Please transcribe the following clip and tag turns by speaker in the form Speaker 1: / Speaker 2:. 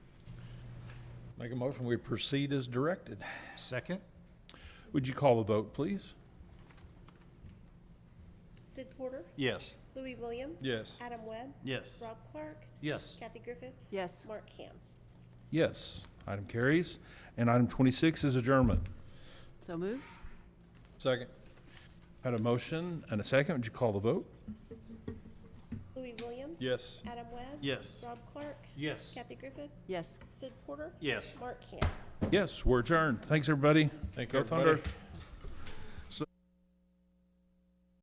Speaker 1: Make a motion, we proceed as directed.
Speaker 2: Second?
Speaker 1: Would you call the vote, please?
Speaker 3: Sid Porter,
Speaker 2: Yes.
Speaker 3: Louis Williams.
Speaker 1: Yes.
Speaker 3: Adam Webb,
Speaker 4: Yes.
Speaker 3: Rob Clark,
Speaker 2: Yes.
Speaker 3: Kathy Griffith.
Speaker 5: Yes.
Speaker 3: Mark Ham.
Speaker 1: Yes. Item carries. And item 26 is adjournment.
Speaker 5: So moved?
Speaker 1: Second. Had a motion and a second. Would you call the vote?
Speaker 3: Louis Williams. Adam Webb.
Speaker 4: Yes.
Speaker 3: Rob Clark,
Speaker 2: Yes.
Speaker 3: Kathy Griffith,
Speaker 5: Yes.
Speaker 3: Sid Porter.
Speaker 4: Yes.
Speaker 3: Mark Ham.
Speaker 1: Yes, we're adjourned. Thanks, everybody. Thank you, everybody.